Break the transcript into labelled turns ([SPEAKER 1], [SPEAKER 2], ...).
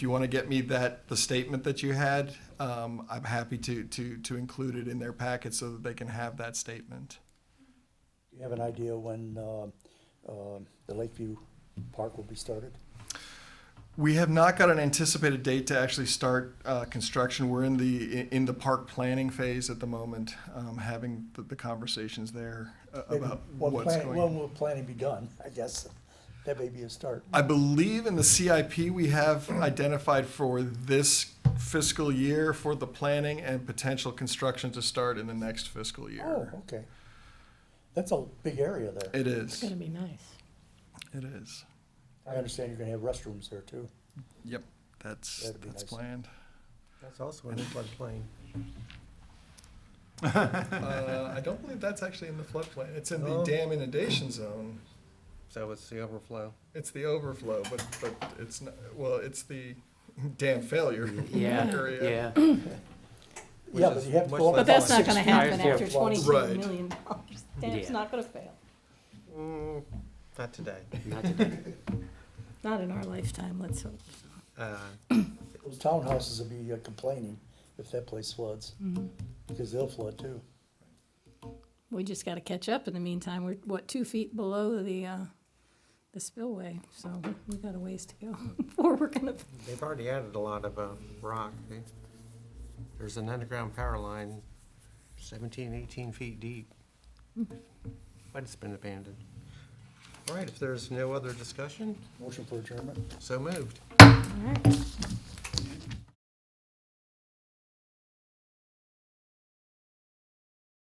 [SPEAKER 1] If you want to get me that, the statement that you had, um, I'm happy to, to, to include it in their packet so that they can have that statement.
[SPEAKER 2] Do you have an idea when uh, uh, the Lakeview Park will be started?
[SPEAKER 1] We have not got an anticipated date to actually start uh, construction. We're in the, in the park planning phase at the moment, um, having the- the conversations there uh,
[SPEAKER 2] Maybe
[SPEAKER 1] about
[SPEAKER 2] when
[SPEAKER 1] what's
[SPEAKER 2] planning-
[SPEAKER 1] going on.
[SPEAKER 2] When will planning be done, I guess? That may be a start.
[SPEAKER 1] I believe in the CIP, we have identified for this fiscal year for the planning and potential construction to start in the next fiscal
[SPEAKER 2] Oh,
[SPEAKER 1] year.
[SPEAKER 2] okay. That's a big area there.
[SPEAKER 1] It
[SPEAKER 3] It's
[SPEAKER 1] is,
[SPEAKER 3] gonna be nice.
[SPEAKER 1] it is.
[SPEAKER 2] I understand you're gonna have restrooms there too.
[SPEAKER 1] Yep, that's,
[SPEAKER 2] That'd be
[SPEAKER 1] that's
[SPEAKER 2] nice.
[SPEAKER 1] planned.
[SPEAKER 4] That's also in the floodplain.
[SPEAKER 1] Uh, I don't believe that's actually in the floodplain. It's in the
[SPEAKER 4] Oh.
[SPEAKER 1] dam inundation zone.
[SPEAKER 4] So it's the overflow.
[SPEAKER 1] It's the overflow, but, but it's not, well, it's the dam failure area.
[SPEAKER 5] Yeah,
[SPEAKER 4] Which
[SPEAKER 2] Yeah, but
[SPEAKER 4] is
[SPEAKER 2] you have to
[SPEAKER 4] much
[SPEAKER 2] go up.
[SPEAKER 4] less-
[SPEAKER 6] But that's not
[SPEAKER 2] six
[SPEAKER 6] gonna
[SPEAKER 2] feet.
[SPEAKER 6] happen
[SPEAKER 5] Yeah.
[SPEAKER 6] after twenty-two
[SPEAKER 1] Right.
[SPEAKER 6] million dollars. It's
[SPEAKER 5] Yeah.
[SPEAKER 6] not gonna fail,
[SPEAKER 4] Mm, Not today.
[SPEAKER 5] yeah, not today.
[SPEAKER 6] not in our lifetime, let's hope.
[SPEAKER 4] Uh,
[SPEAKER 2] Those townhouses will be uh, complaining if that place floods,
[SPEAKER 6] Mm-hmm.
[SPEAKER 2] because they'll flood too.
[SPEAKER 6] We just gotta catch up in the meantime, we're, what, two feet below the, uh, the spillway, so we got a ways to go before we're gonna,
[SPEAKER 4] They've already added a lot of uh, rock. They- There's an underground power line 17, 18 feet deep. But it's been abandoned. All right, if there's no other discussion,
[SPEAKER 2] Motion for adjournment?
[SPEAKER 4] so moved.
[SPEAKER 6] all right.